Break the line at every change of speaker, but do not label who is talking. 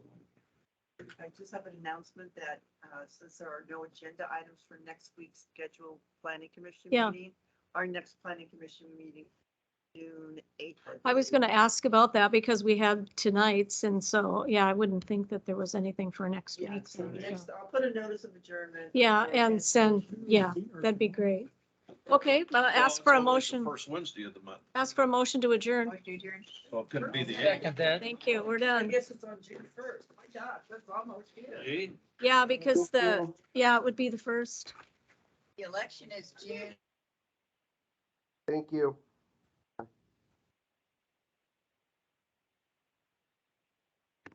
I just have an announcement that uh, since there are no agenda items for next week's scheduled planning commission
Yeah.
meeting, our next planning commission meeting, June eighth.
I was going to ask about that because we had tonight's and so, yeah, I wouldn't think that there was anything for next
Yeah,
week.
so next, I'll put a notice of adjournment.
Yeah, and send, yeah, that'd be great. Okay, but
Well,
ask
it's
for a
always the
motion,
First Wednesday of the month,
ask for a motion to adjourn.
Motion adjourned.
so it couldn't be the
Second
eighth.
that.
Thank you, we're
I
done.
guess it's on June first. My God, that's almost here.
Eighth?
Yeah, because the, yeah, it would be the first.
Thank you.